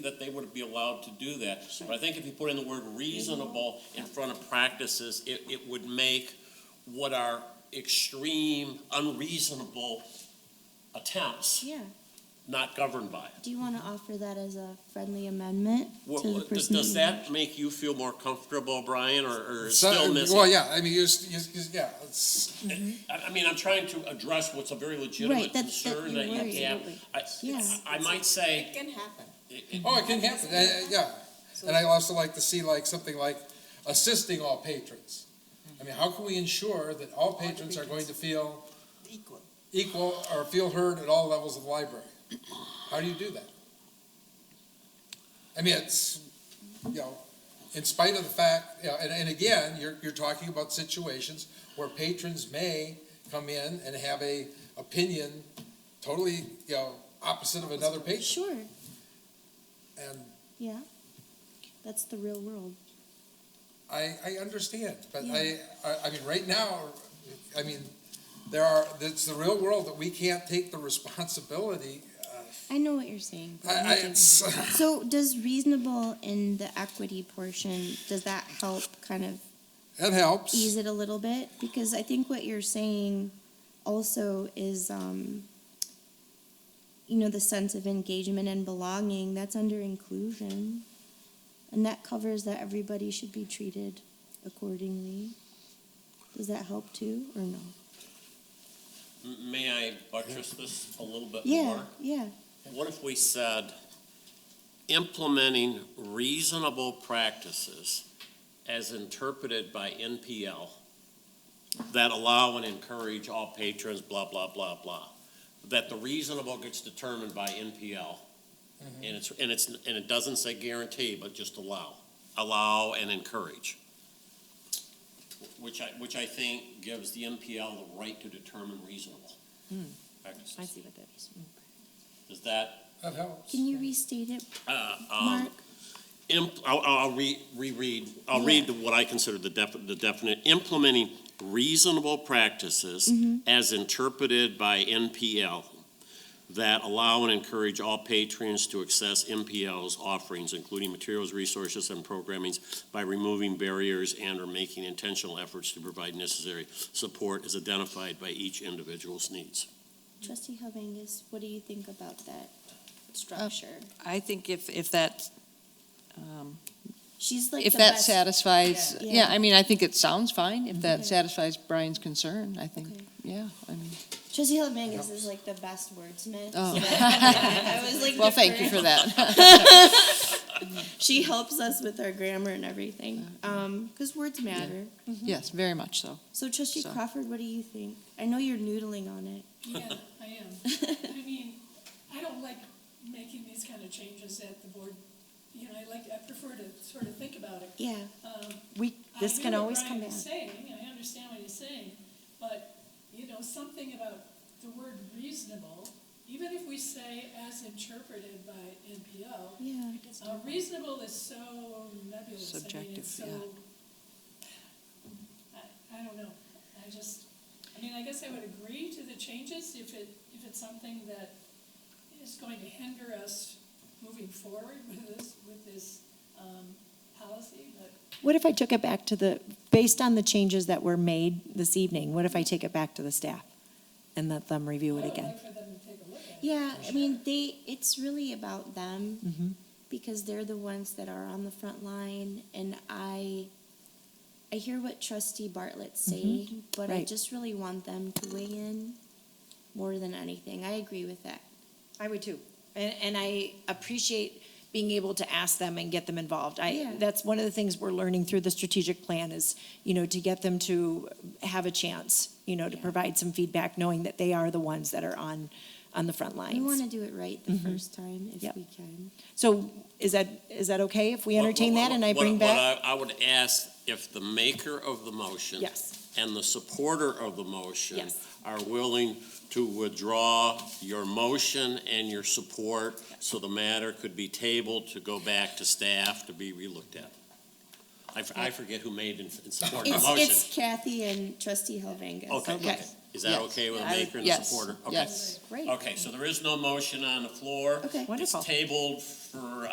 that they would be allowed to do that. But I think if you put in the word reasonable in front of practices, it, it would make what are extreme, unreasonable attempts Yeah. not governed by it. Do you want to offer that as a friendly amendment What, to the what- does, person? does that make you feel more comfortable, Brian, or, or is So- still Well, missing? yeah, I mean, you, s- you, s- you s- yeah, it's, I, I mean, I'm trying to address what's a very Mm-hmm. Right, legitimate that's- that concern you're that worried. you have. I, Yeah. I might say, It can happen. it- it- oh, it can happen, uh, uh, yeah. And I also like to see like something like assisting all patrons. I mean, how can we ensure that all patrons are going to feel Equal. equal or feel heard at all levels of the library? How do you do that? I mean, it's, you know, in spite of the fact, you know, and, and again, you're, you're talking about situations where patrons may come in and have a opinion totally, you know, opposite of another patron. Sure. And Yeah. That's the real world. I, I understand, but I, Yeah. I, I mean, right now, I mean, there are, it's the real world that we can't take the responsibility. I know what you're saying. I, Brian. I, it's, so, does reasonable in the equity portion does that help kind of that helps. ease it a little bit? Because I think what you're saying also is, um, you know, the sense of engagement and belonging. That's under inclusion, and that covers that everybody should be treated accordingly. Does that help too, or no? m- may I buttress this a little bit Yeah, more? yeah. What if we said implementing reasonable practices as interpreted by NPL that allow and encourage all patrons, blah, blah, blah, blah? That the reasonable gets determined by NPL. Mm-hmm. And it's, and it's, and it doesn't say guarantee, but just allow, allow and encourage. Which I, which I think gives the NPL the right to determine reasonable practices. Hmm. I see what that is. Is that That helps. Can you restate it, Uh, um, Mark? imp- I'll, I'll re- reread, I'll read the- what I consider the defi- the definite, implementing reasonable practices Mm-hmm. as interpreted by NPL that allow and encourage all patrons to access MPL's offerings, including materials, resources, and programmings by removing barriers and or making intentional efforts to provide necessary support as identified by each individual's needs. Trustee Helvangus, what do you think about that structure? I think if, if that, um, She's like if the that best- satisfies, Yeah. yeah, I mean, I think it sounds fine, if Okay. that satisfies Brian's concern, I think, Okay. yeah, I mean, Trustee Helvangus is like the best wordsmith. so Oh. that- I was like, well, thank you deferring. for that. She helps us with our grammar and everything, um, because words matter. Yes, very much so. So Trustee So- Crawford, what do you think? I know you're noodling on it. Yeah, I am. I mean, I don't like making these kind of changes at the board, you know, I like, I prefer to sort of think about it. Yeah, Um, We, I hear what Brian is saying, I understand what he's saying, but, you know, something about the word reasonable, even if we say as interpreted by NPO, yeah. uh, reasonable is so nebulous. I mean, Subjective, it's so. I, I don't know. I just, I mean, I guess I would agree to the changes if it, if it's something that is going to hinder us moving forward with this, with this, um, policy, but What if I took it back to the, based on the changes that were made this evening, what if I take it back to the staff and let them review I it would again? like for them to take a look at it. Yeah, I mean, they, it's really about them because they're the ones that are on the front line. And I, I hear what Trustee Bartlett's saying, but I right. just really want them to weigh in more than anything. I agree with that. I would too. And, and I appreciate being able to ask them and get them involved. Yeah. I, that's one of the things we're learning through the strategic plan is, you know, to get them to have a chance, you know, to Yeah. provide some feedback, knowing that they are the ones that are on, on the front We want lines. to do it right the first time if Yep. we can. So is that, is that okay if we entertain What- that and I what- bring what back? I I would ask if the maker of the motion. Yes. And the supporter of the motion. Yes. Are willing to withdraw your motion and your support, so the matter could be tabled to go back to staff to be relooked at. I, f- I forget who made and and supported the It's, motion. it's Kathy and Trustee Helvangus. Okay, okay. Is that Yes. okay with the I would- maker and the yes, Oh, supporter? Okay. Yes. Great. Okay, so there is no motion on the floor. Okay. It's Wonderful. tabled for